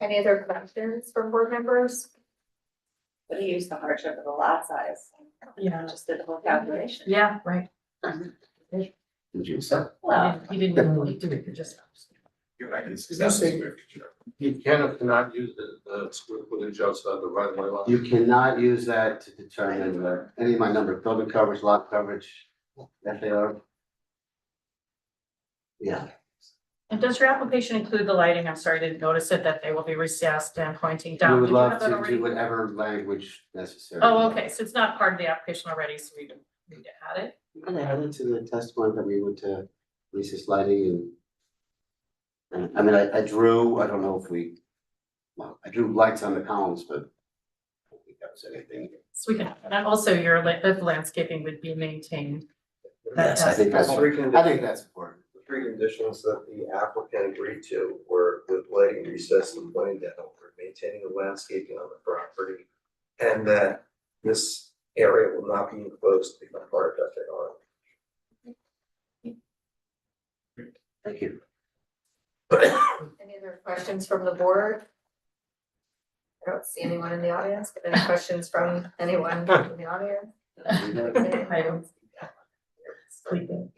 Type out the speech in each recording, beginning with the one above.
Any other questions from board members? But he used the hardship of the lot size. Yeah. Just did the whole calculation. Yeah, right. Did you say? Well, Uh, He didn't even need to, he could just. You're right, it's Is that's this a- square feet. You can or cannot use the, the square footage outside the right of way line. You cannot use that to determine uh, any of my number, building coverage, lot coverage, FAR. Yeah, And does your application include the lighting? I'm sorry, I didn't notice it, that they will be recessed and pointing we down. would Did you have love that to already? do whatever language necessary. Oh, okay, so it's not part of the application already, so we don't need to add it. We're gonna add it to the testimony that we went to Lisa's lighting and. And I mean, I, I drew, I don't know if we, well, I drew lights on the columns, but. I don't think that was anything. So we can, and also your la- the landscaping would be maintained. That Yes, I think that's, Three I think that's important. The three conditions that the applicant agreed to were with lighting recess and pointing down, or maintaining the landscaping on the property. And that this area will not be enclosed to become part of FAR. Thank you. Any other questions from the board? I don't see anyone in the audience, but any questions from anyone in the audience? I don't Sleeping.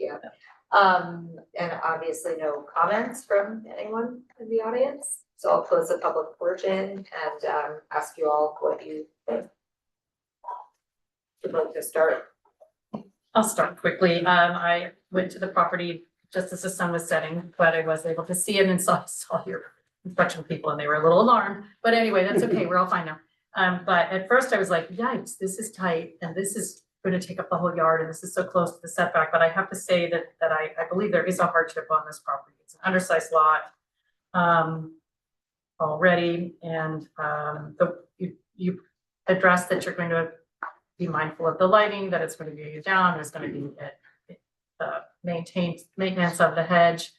Um, and obviously no comments from anyone in the audience, so I'll close the public portion and um ask you all what you think. Would like to start, I'll start quickly. Um, I went to the property just as the sun was setting, but I was able to see it and saw, saw your construction people and they were a little alarmed. But anyway, that's okay. We're all fine now. Um, but at first I was like, yikes, this is tight and this is going to take up the whole yard and this is so close to the setback. But I have to say that, that I, I believe there is a hardship on this property. It's an undersized lot. Um, already and, um, the, you, you addressed that you're going to be mindful of the lighting, that it's gonna be down, there's gonna be uh, uh, maintained, maintenance of the hedge.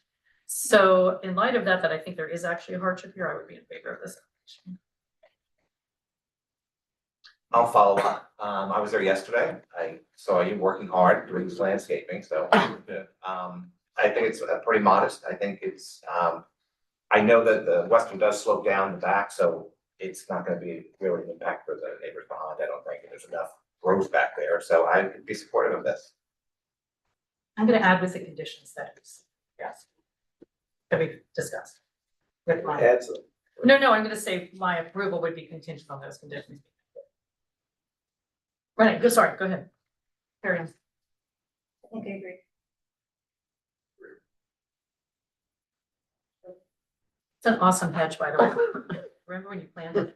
So in light of that, that I think there is actually a hardship here, I would be in favor of this. application. I'll follow up. Um, I was there yesterday. I saw you working hard doing this landscaping, so. Um, I think it's uh, pretty modest. I think it's, um, I know that the western does slope down the back, so it's not gonna be really an impact for the neighbors behind. I don't think there's enough growth back there, so I'd be supportive of this. I'm gonna add with the conditions that is, yes. That we discussed. With my, Add some. no, no, I'm gonna say my approval would be contingent on those conditions. Right, go, sorry, go ahead. Carry on. I think I agree. It's an awesome hedge, by the way. Remember when you planted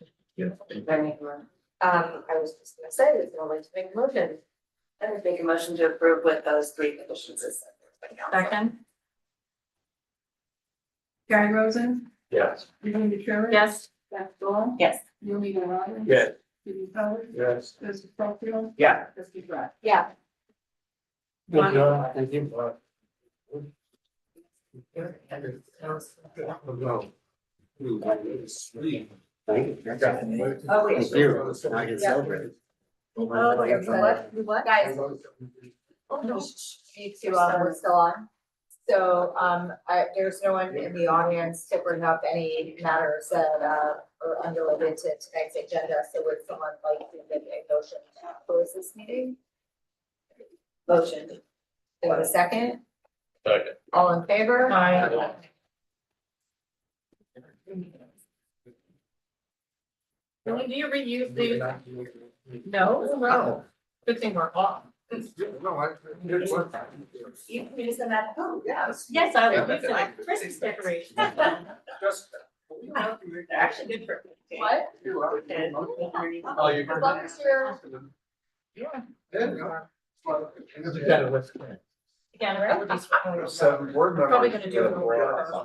it? Beautiful. um, I was just gonna say, it's only to make a motion. I would make a motion to approve with those three conditions. as set forth by council. Second, Guy Rosen, Yes. Elaine Detroit. yes? Beth Dahl. Yes. Naomi Novara. Yes. Judy Pollard. Yes. Joseph Caulfield. Yeah. Trustee Brett. Yeah, thank you. Thank you. Oh, wait. Thank you. Now I can celebrate. what, what? Guys, oh, no, need to, uh, we're still on. So, um, I, there's no one in the audience to bring up any matters that, uh, are unrelated to tonight's agenda, so would someone like to make a motion to close this meeting? Motion. Do I have a second? Second. All in favor? Aye. Do you reuse the, no, Oh. no, good thing we're off. You can use them at home. Yes. Yes, I Yeah, would that's use it nice. as Christmas decoration. They're actually good for. What? Oh, you're. As long as you're, Again, that would be. Seven board members. Probably gonna do it get a over board. the-